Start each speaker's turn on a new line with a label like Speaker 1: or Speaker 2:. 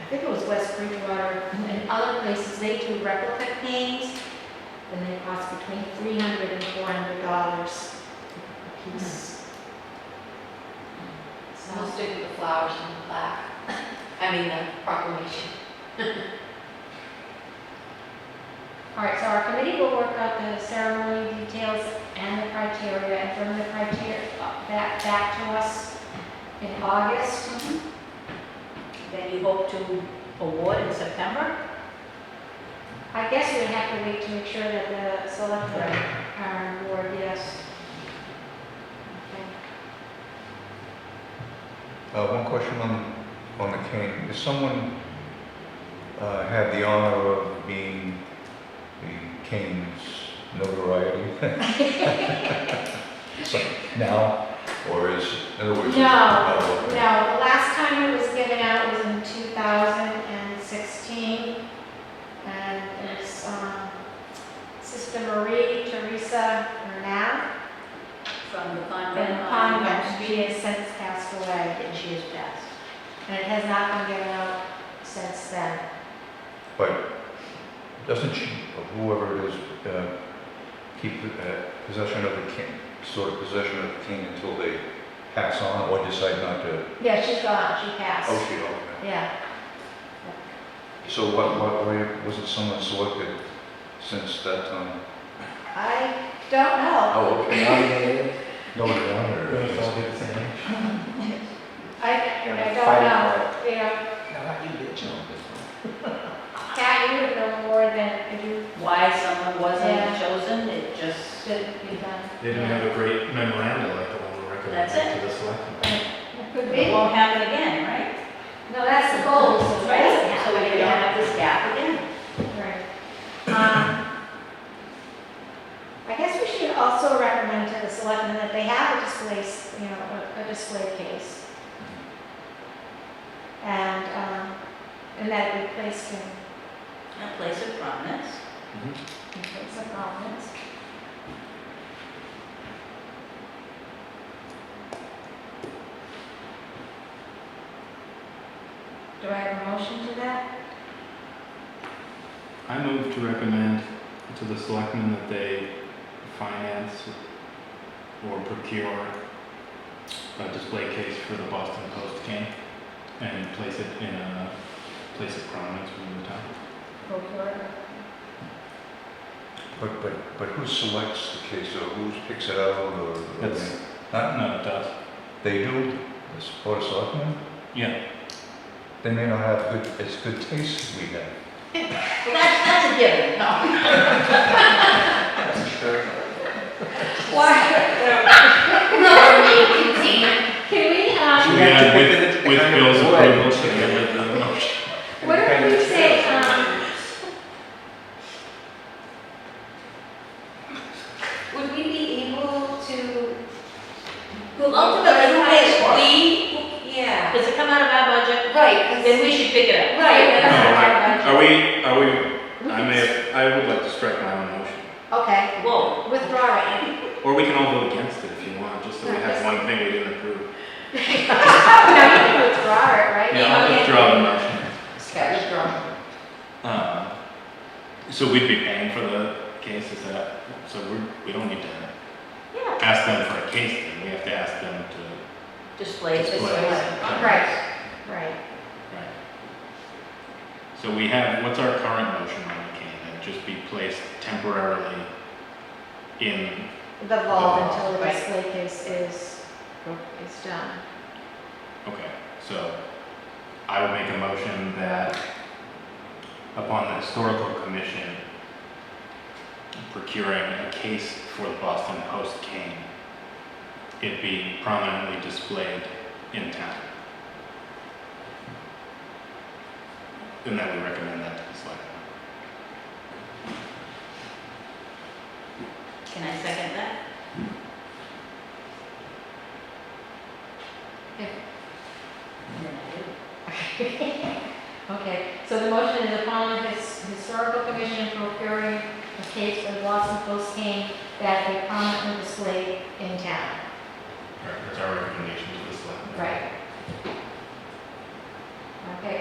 Speaker 1: I think it was West Bridgewater, and other places, they do replica paintings, and they cost between three hundred and four hundred dollars a piece.
Speaker 2: We'll
Speaker 1: So,
Speaker 2: stick with the flowers and the plaque, I mean, the proclamation.
Speaker 1: all right, so our committee will work out the ceremony details and the criteria, and from the criteria, uh, back, back to us in August.
Speaker 3: Then you hope to award in September?
Speaker 1: I guess we have to wait to make sure that the select board are on board, yes. Okay.
Speaker 4: Uh, One question on, on the cane. Does someone uh, have the honor of being the cane's notoriety? So, Now, or is, in other words? is it-
Speaker 1: No,
Speaker 4: oh,
Speaker 1: No,
Speaker 4: okay.
Speaker 1: the last time it was given out was in 2016, and it's um, Sister Marie Teresa Renat
Speaker 3: From the convent?
Speaker 1: from
Speaker 3: on
Speaker 1: Convent. She has since passed away,
Speaker 3: And she is passed.
Speaker 1: and it has not been given out since then.
Speaker 4: But doesn't she, or whoever it is, uh, keep uh, possession of the cane, sort of possession of the cane until they pass on or decide not to?
Speaker 1: Yeah, she's gone, she
Speaker 4: Oh,
Speaker 1: passed.
Speaker 4: she, okay.
Speaker 1: Yeah,
Speaker 4: So what, what, way wasn't someone selected since that time?
Speaker 1: I don't know.
Speaker 4: Oh, okay. No, no, no, no, no.
Speaker 1: I, I don't know, you know, Kat, you would know more than if you
Speaker 3: Why someone
Speaker 1: Yeah.
Speaker 3: wasn't chosen, it just,
Speaker 1: should be done.
Speaker 5: They didn't have a great memorandum like the one we
Speaker 3: That's
Speaker 5: recommended to the selectmen.
Speaker 1: It Could
Speaker 3: it
Speaker 1: be.
Speaker 3: won't happen again, right?
Speaker 1: No, that's the goal, so
Speaker 3: Right,
Speaker 1: that's.
Speaker 3: so we don't have this gap again.
Speaker 1: Right. Um, I guess we should also recommend to the selectmen that they have a display, s- you know, a a display case. And, um, and that we place in,
Speaker 3: A place of prominence.
Speaker 5: Mm-hmm.
Speaker 1: in place of prominence. Do I have a motion to that?
Speaker 5: I move to recommend to the selectmen that they finance or procure a display case for the Boston Post cane and place it in a place of prominence within the town.
Speaker 1: Go for it.
Speaker 4: But, but, but who selects the case, or who picks it out, or? or
Speaker 5: That's-
Speaker 4: they- Not,
Speaker 5: No, it does.
Speaker 4: they do, the Board of Selectmen,
Speaker 5: Yeah,
Speaker 4: they may not have good, as good taste as we have.
Speaker 3: Well, that's, that's a given, no.
Speaker 1: Why? Can we, um,
Speaker 5: Yeah, with, with Bill's approval together with the motion.
Speaker 1: what if we say, um,
Speaker 2: Would we be able to?
Speaker 3: Well, ultimately, who pays for it?
Speaker 2: We, yeah.
Speaker 3: Does it come out of our budget?
Speaker 2: Right, 'cause-
Speaker 3: Then we should pick it up.
Speaker 2: right,
Speaker 5: No,
Speaker 2: that's not our
Speaker 5: I-
Speaker 2: budget.
Speaker 5: Are we, are we, I may, I would like to strike my own motion.
Speaker 1: okay,
Speaker 3: Whoa.
Speaker 1: withdraw it.
Speaker 5: Or we can all vote against it if you want, just so we have one thing we didn't approve.
Speaker 1: Oh, now you can withdraw it, right?
Speaker 5: Yeah, I'll
Speaker 1: Okay.
Speaker 5: withdraw the motion.
Speaker 2: Okay, withdraw.
Speaker 5: Uh, So we'd be paying for the case, is that, so we're, we don't need to
Speaker 1: Yeah,
Speaker 5: ask them for a case, then we have to ask them to
Speaker 3: Displays.
Speaker 5: display. it.
Speaker 1: Right. right.
Speaker 5: Right. So we have, what's our current motion on the cane, that just be placed temporarily in,
Speaker 1: The vault
Speaker 5: vault,
Speaker 1: until the
Speaker 3: right.
Speaker 1: display case is, is done.
Speaker 5: okay, so I would make a motion that upon the historical commission procuring a case for the Boston Post cane, it be prominently displayed in town. And that we recommend that to the selectmen.
Speaker 3: Can I second that?
Speaker 1: Yeah.
Speaker 3: And then I do.
Speaker 1: Okay, so the motion is upon the his- historical commission procuring a case for the Boston Post cane that they prominently display in town.
Speaker 5: All right, that's our recommendation to the selectmen.
Speaker 1: Right. Okay,